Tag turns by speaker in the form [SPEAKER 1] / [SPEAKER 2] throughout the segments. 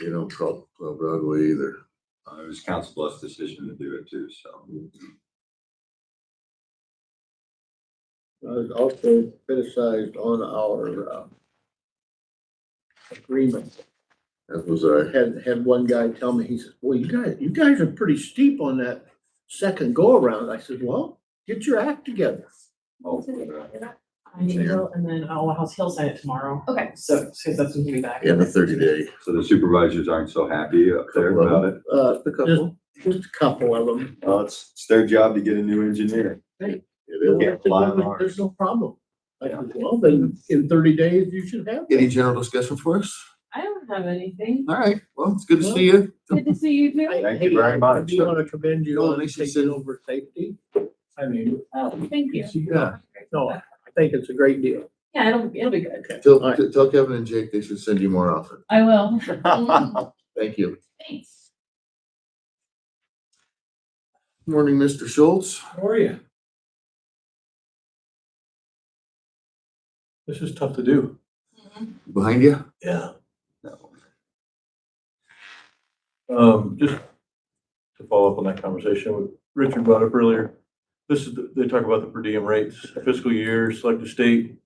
[SPEAKER 1] You don't call Club Broadway either.
[SPEAKER 2] Uh, It was council bluff's decision to do it too, so.
[SPEAKER 3] was also criticized on our uh, agreement.
[SPEAKER 1] That was I.
[SPEAKER 3] Had, had one guy tell me, he says, well, you guys, you guys are pretty steep on that second go around. I said, well, get your act together.
[SPEAKER 2] I'll put it out.
[SPEAKER 4] I will, and then uh, I'll, I'll- he'll sign it tomorrow.
[SPEAKER 5] Okay.
[SPEAKER 4] So, so that's when we'll be back.
[SPEAKER 1] In the thirty day.
[SPEAKER 2] So the supervisors aren't so happy up there about it.
[SPEAKER 3] Uh,
[SPEAKER 1] A
[SPEAKER 3] couple. Just a couple of them.
[SPEAKER 2] Well, it's, it's their job to get a new engineer.
[SPEAKER 1] It is.
[SPEAKER 2] Yeah, fly on ours.
[SPEAKER 3] There's no problem. I said, well, then in thirty days, you should have.
[SPEAKER 1] Any general discussion for us?
[SPEAKER 4] I don't have anything.
[SPEAKER 1] All right, well, it's good to see you.
[SPEAKER 4] Good to see you too.
[SPEAKER 2] Thank you very much.
[SPEAKER 3] I do want to commend you
[SPEAKER 1] Well,
[SPEAKER 3] on
[SPEAKER 1] makes you
[SPEAKER 3] taking
[SPEAKER 1] say-
[SPEAKER 3] over safety. I mean,
[SPEAKER 4] Oh, thank you.
[SPEAKER 1] Yeah.
[SPEAKER 3] no, I think it's a great deal.
[SPEAKER 4] Yeah, it'll, it'll be good.
[SPEAKER 1] Tell,
[SPEAKER 3] All right.
[SPEAKER 1] tell Kevin and Jake they should send you more often.
[SPEAKER 4] I will.
[SPEAKER 1] Thank you.
[SPEAKER 4] Thanks.
[SPEAKER 1] Morning, Mr. Schultz.
[SPEAKER 6] How are you? This is tough to do.
[SPEAKER 1] Behind you?
[SPEAKER 6] Yeah.
[SPEAKER 2] No.
[SPEAKER 6] Um, just to follow up on that conversation with Richard brought up earlier. This is, the- they talk about the per diem rates, fiscal year, selective state.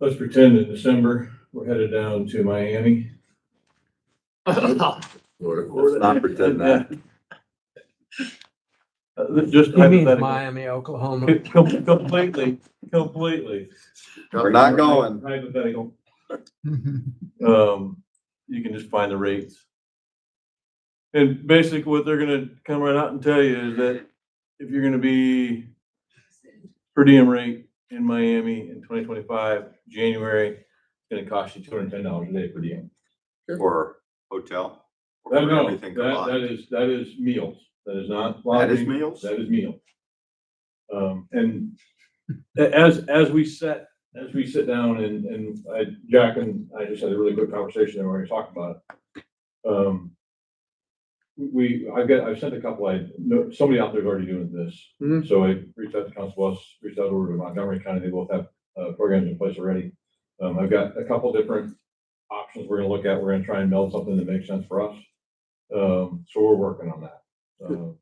[SPEAKER 6] Let's pretend in December, we're headed down to Miami.
[SPEAKER 1] Florida.
[SPEAKER 2] Let's not pretend that.
[SPEAKER 6] Uh, Just
[SPEAKER 7] He means
[SPEAKER 6] hypothetically.
[SPEAKER 7] Miami, Oklahoma.
[SPEAKER 6] Com- Completely, completely
[SPEAKER 2] We're not going.
[SPEAKER 6] hypothetical. Um, you can just find the rates. And basically what they're gonna come right out and tell you is that if you're gonna be per diem rate in Miami in twenty twenty-five, January, it's gonna cost you two hundred and ten dollars a day per diem.
[SPEAKER 2] Or hotel. or
[SPEAKER 6] No, no,
[SPEAKER 2] everything
[SPEAKER 6] that, that
[SPEAKER 2] combined.
[SPEAKER 6] is, that is meals. That is not
[SPEAKER 2] That is
[SPEAKER 6] lodging.
[SPEAKER 2] meals?
[SPEAKER 6] That is meal. Um, and a- as, as we sat, as we sit down and, and I, Jack and I just had a really good conversation there where we talked about it. Um, we, I've got, I've sent a couple, I, no, somebody out there's already doing this.
[SPEAKER 3] Mhm.
[SPEAKER 6] So I reached out to Council Bluffs, reached out over to Montgomery County, they both have, uh, programs in place already. Um, I've got a couple different options we're gonna look at, we're gonna try and meld something that makes sense for us. Um, so we're working on that. Um,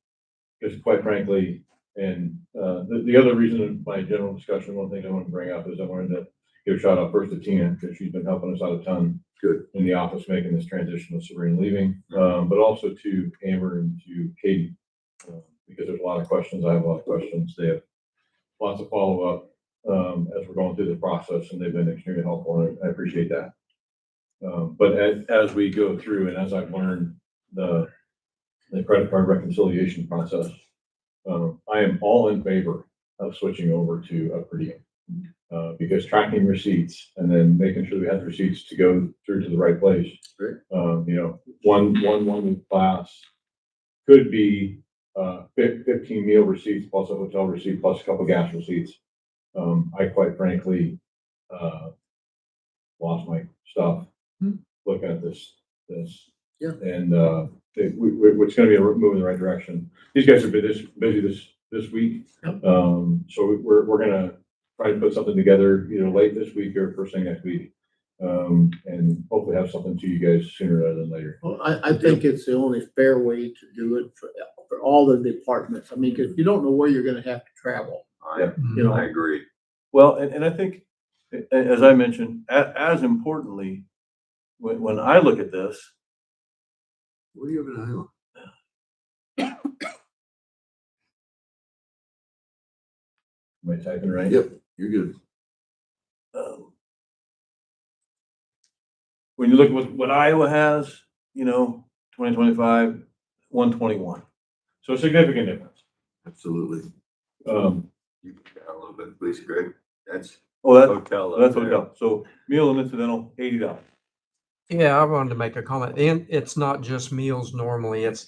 [SPEAKER 6] because quite frankly, and uh, the, the other reason in my general discussion, one thing I wanted to bring up is I wanted to give a shout out first to Tina, because she's been helping us out a ton.
[SPEAKER 1] Good.
[SPEAKER 6] In the office, making this transition with Sabrina leaving, um, but also to Amber and to Katie. uh, Because there's a lot of questions, I have a lot of questions, they have lots of follow-up, um, as we're going through the process, and they've been extremely helpful, and I appreciate that. Um, but as, as we go through and as I've learned the, the credit card reconciliation process, um, I am all in favor of switching over to a per diem. Uh, because tracking receipts and then making sure we have the receipts to go through to the right place.
[SPEAKER 1] Right.
[SPEAKER 6] Um, you know, one, one, one week class could be, uh, fif- fifteen meal receipts plus a hotel receipt plus a couple gas receipts. Um, I quite frankly, uh, lost my stuff
[SPEAKER 1] Hmm.
[SPEAKER 6] looking at this, this.
[SPEAKER 1] Yeah.
[SPEAKER 6] And, uh, it, we, we, it's gonna be a move in the right direction these guys have been this busy this, this week.
[SPEAKER 3] Yep.
[SPEAKER 6] Um, so we- we're, we're gonna try to put something together either late this week or first thing next week. Um, and hopefully have something to you guys sooner rather than later.
[SPEAKER 3] Well, I, I think it's the only fair way to do it for, for all the departments. I mean, because you don't know where you're gonna have to travel,
[SPEAKER 2] I,
[SPEAKER 6] Mm-hmm.
[SPEAKER 3] you know.
[SPEAKER 2] I agree.
[SPEAKER 6] Well, and, and I think, a- a- as I mentioned, a- as importantly, when, when I look at this,
[SPEAKER 1] What do you have in Iowa?
[SPEAKER 6] am I typing right?
[SPEAKER 1] Yep, you're good.
[SPEAKER 6] um, when you look at what, what Iowa has, you know, twenty twenty-five, one twenty-one. So a significant difference.
[SPEAKER 1] Absolutely.
[SPEAKER 6] Um,
[SPEAKER 2] You can add A little bit, please, Greg. That's
[SPEAKER 6] oh, that,
[SPEAKER 2] hotel. up
[SPEAKER 6] that's what
[SPEAKER 2] there.
[SPEAKER 6] we got. So meal and incidental, eighty dollars.
[SPEAKER 7] Yeah, I wanted to make a comment. And it's not just meals normally, it's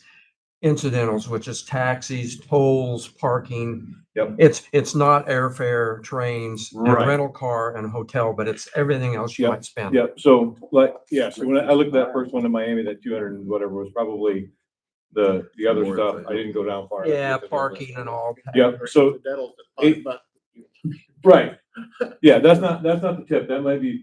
[SPEAKER 7] incidentals, which is taxis, tolls, parking.
[SPEAKER 6] Yep.
[SPEAKER 7] It's, it's not airfare, trains, and
[SPEAKER 6] Right.
[SPEAKER 7] rental car and hotel, but it's everything else you
[SPEAKER 6] Yep,
[SPEAKER 7] might spend.
[SPEAKER 6] Yeah, so like, yeah, so when I I looked at that first one in Miami, that two hundred and whatever was probably the, the other
[SPEAKER 1] More
[SPEAKER 6] stuff.
[SPEAKER 1] than-
[SPEAKER 6] I didn't go down far.
[SPEAKER 7] Yeah, parking and all.
[SPEAKER 6] Yep, so,
[SPEAKER 3] That'll,
[SPEAKER 6] It-
[SPEAKER 3] but
[SPEAKER 6] right. Yeah, that's not, that's not the tip. That might be